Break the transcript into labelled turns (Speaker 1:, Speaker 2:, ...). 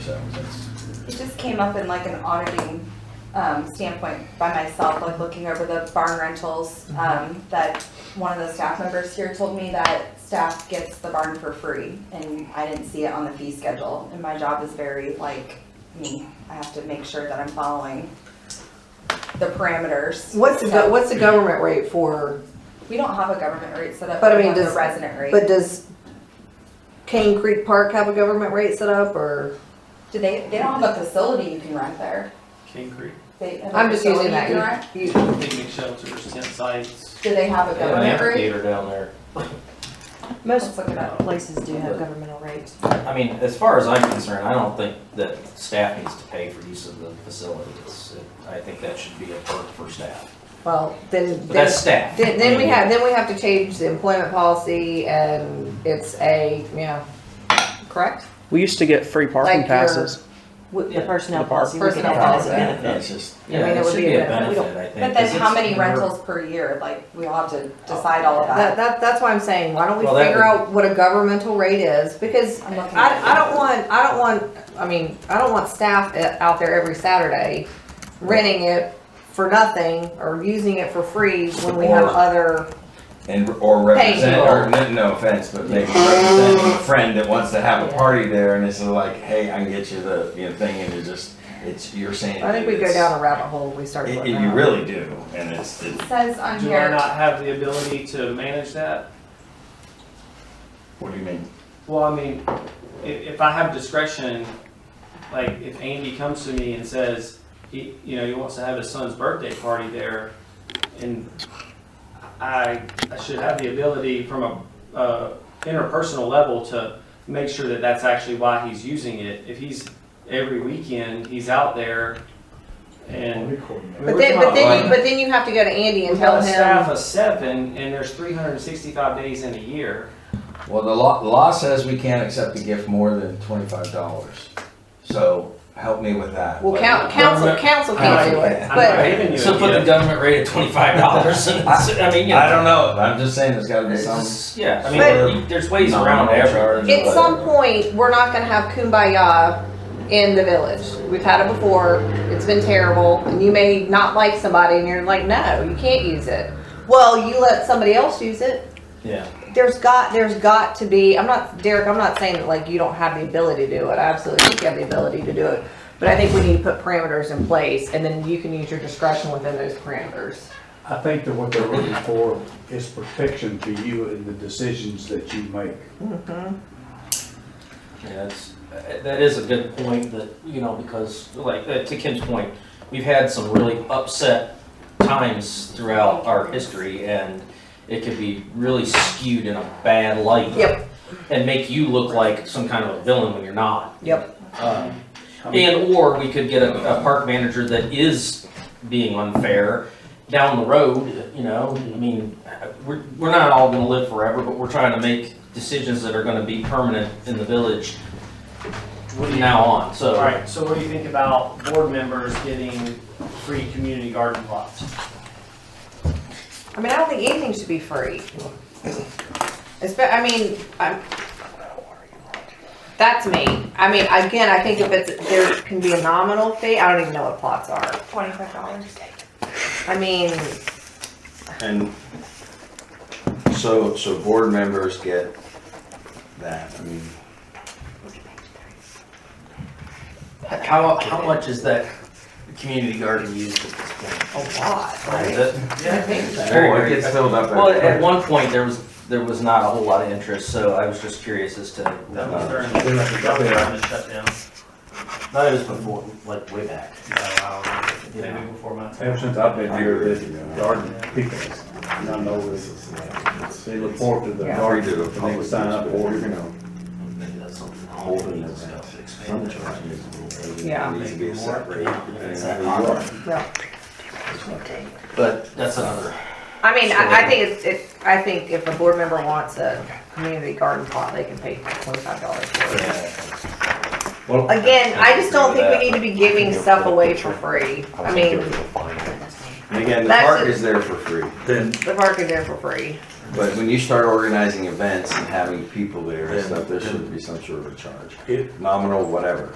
Speaker 1: So that's,
Speaker 2: It just came up in like an auditing um, standpoint by myself, like looking over the barn rentals,
Speaker 3: Mm-hmm.
Speaker 2: um, that one of the staff members here told me that staff gets the barn for free, and I didn't see it on the fee schedule, and my job is very like me, I have to make sure that I'm following the parameters.
Speaker 3: What's the,
Speaker 2: So,
Speaker 3: go- what's the government rate for,
Speaker 2: We don't have a government rate set up,
Speaker 3: But I
Speaker 2: we
Speaker 3: mean,
Speaker 2: have the
Speaker 3: does-
Speaker 2: resident rate.
Speaker 3: but does Cane Creek Park have a government rate set up or?
Speaker 2: Do they, they don't have a facility you can rent there,
Speaker 4: King Creek.
Speaker 2: they have a
Speaker 3: I'm just using
Speaker 2: facility you can
Speaker 3: that.
Speaker 2: rent?
Speaker 3: You- you-
Speaker 4: Picnic shelters, tent sites.
Speaker 2: Do they have a
Speaker 1: They have an
Speaker 2: government rate?
Speaker 1: amphitheater down there.
Speaker 2: Most
Speaker 5: places do have governmental rates.
Speaker 1: I mean, as far as I'm concerned, I don't think that staff needs to pay for use of the facilities. I think that should be a perk for staff.
Speaker 3: Well, then,
Speaker 1: But
Speaker 3: then,
Speaker 1: that's staff.
Speaker 3: then then we have, then we have to change the employment policy and it's a, you know, correct?
Speaker 6: We used to get free parking
Speaker 3: Like your-
Speaker 6: passes.
Speaker 5: With the
Speaker 1: Yeah.
Speaker 5: personnel
Speaker 6: The park.
Speaker 5: policy, we could
Speaker 3: Personnel
Speaker 5: add that as a
Speaker 3: policy.
Speaker 5: benefit.
Speaker 1: It's just,
Speaker 3: I mean,
Speaker 1: yeah,
Speaker 3: it
Speaker 1: it
Speaker 3: would
Speaker 1: should
Speaker 3: be a
Speaker 1: be a
Speaker 3: benefit. We
Speaker 1: benefit, I think.
Speaker 2: But
Speaker 1: 'cause
Speaker 2: then
Speaker 1: it's-
Speaker 2: how many rentals per year? Like, we'll have to decide all of
Speaker 3: That,
Speaker 2: that.
Speaker 3: that, that's why I'm saying, why don't we
Speaker 1: Well, that
Speaker 3: figure
Speaker 1: would-
Speaker 3: out what a governmental rate is? Because
Speaker 2: I'm looking
Speaker 3: I,
Speaker 2: at
Speaker 3: I don't want, I don't want, I mean, I don't want staff i- out there every Saturday renting it for nothing or using it for free when we have
Speaker 7: Or-
Speaker 3: other,
Speaker 7: And, or represent,
Speaker 1: Thank you.
Speaker 7: or, no- no offense, but maybe representing a friend that wants to have a party there and it's like, hey, I can get you the, you know, thing and you're just, it's, you're saying.
Speaker 3: I think we go down a rabbit hole, we start
Speaker 7: It,
Speaker 3: looking
Speaker 7: it- you
Speaker 3: at.
Speaker 7: really do, and it's, it's,
Speaker 2: It says on
Speaker 4: Do I
Speaker 2: here,
Speaker 4: not have the ability to manage that?
Speaker 7: what do you mean?
Speaker 4: Well, I mean, if, if I have discretion, like if Andy comes to me and says, he, you know, he wants to have his son's birthday party there, and I, I should have the ability from a, uh, interpersonal level to make sure that that's actually why he's using it. If he's, every weekend, he's out there and.
Speaker 3: But then, but then, you-
Speaker 7: Right.
Speaker 3: but then you have to go to Andy
Speaker 4: We
Speaker 3: and tell
Speaker 4: got a staff
Speaker 3: him,
Speaker 4: of seven, and there's three hundred and sixty-five days in a year.
Speaker 7: Well, the law, the law says we can't accept a gift more than twenty-five dollars, so help me with that.
Speaker 3: well,
Speaker 7: Like,
Speaker 3: coun- council, council can't do it,
Speaker 4: I'm
Speaker 3: but,
Speaker 4: not giving you
Speaker 1: So
Speaker 4: a
Speaker 1: put the
Speaker 4: gift.
Speaker 1: government rate at twenty-five dollars and, it's- I mean, you know.
Speaker 7: I don't know, I'm just saying there's gotta be
Speaker 1: It's
Speaker 7: some.
Speaker 1: just- Yeah, I
Speaker 7: But-
Speaker 1: mean, you- there's ways
Speaker 7: No,
Speaker 1: around
Speaker 7: no,
Speaker 1: everything.
Speaker 7: no, no.
Speaker 3: At some point, we're not gonna have kumbaya in the village. We've had it before, it's been terrible, and you may not like somebody and you're like, no, you can't use it. Well, you let somebody else use it.
Speaker 1: Yeah.
Speaker 3: There's got, there's got to be, I'm not, Derek, I'm not saying that like you don't have the ability to do it. I absolutely think you have the ability to do it. But I think we need to put parameters in place and then you can use your discretion within those parameters.
Speaker 8: I think that what they're looking for is protection to you in the decisions that you make.
Speaker 1: Yeah, it's, uh, that is a good point that, you know, because like, uh, to Kim's point, we've had some really upset times throughout our history and it could be really skewed in a bad light.
Speaker 3: Yep.
Speaker 1: And make you look like some kind of a villain when you're not.
Speaker 3: Yep.
Speaker 1: Um,
Speaker 8: I mean,
Speaker 1: And, or we could get a, a park manager that is being unfair down the road, you know? I mean, we're, we're not all gonna live forever, but we're trying to make decisions that are gonna be permanent in the village
Speaker 4: What do
Speaker 1: from
Speaker 4: you-
Speaker 1: now on,
Speaker 4: All
Speaker 1: so.
Speaker 4: right, so what do you think about board members getting free community garden plots?
Speaker 3: I mean, I don't think anything should be free. Espe- I mean, I'm, that's me. I mean, again, I think if it's, there can be a nominal fee, I don't even know what plots are.
Speaker 2: twenty-five dollars.
Speaker 3: I mean,
Speaker 7: And so, so board members get that, I mean.
Speaker 1: How, how much is that community garden used at this point?
Speaker 3: a
Speaker 2: Oh,
Speaker 3: lot,
Speaker 1: Is
Speaker 3: right?
Speaker 1: it?
Speaker 3: I think so.
Speaker 1: Very,
Speaker 7: Oh, it
Speaker 1: very-
Speaker 7: gets filled up.
Speaker 1: Well,
Speaker 7: every-
Speaker 1: at one point, there was, there was not a whole lot of interest, so I was just curious as to.
Speaker 4: That was during, that was during the shutdown.
Speaker 1: That was before, like way back.
Speaker 4: um, Maybe before my time.
Speaker 8: Ever since I've been here, the garden people, and I know this, they look forward to the
Speaker 3: Yeah.
Speaker 7: Or you
Speaker 8: garden,
Speaker 7: do a
Speaker 8: and they
Speaker 7: public
Speaker 8: would sign up
Speaker 7: newspaper,
Speaker 8: for
Speaker 7: you
Speaker 8: it.
Speaker 7: know,
Speaker 1: Maybe that's something.
Speaker 7: holding it up, some charge.
Speaker 3: Yeah.
Speaker 7: It needs to be separate, depending on who you are.
Speaker 1: But
Speaker 3: No.
Speaker 1: that's another.
Speaker 3: I mean, I, I think it's, it's, I think if a board member wants a community garden plot, they can pay twenty-five dollars for it.
Speaker 8: Well,
Speaker 3: Again, I just don't think we need to be giving stuff away for free. I mean,
Speaker 7: And again, the
Speaker 3: That's
Speaker 7: park
Speaker 3: it.
Speaker 7: is there for free,
Speaker 9: Then,
Speaker 3: the park is there for free.
Speaker 7: but when you start organizing events and having people there and
Speaker 9: Then-
Speaker 7: stuff, there
Speaker 9: then-
Speaker 7: should be some sort of a charge,
Speaker 9: it-
Speaker 7: nominal, whatever.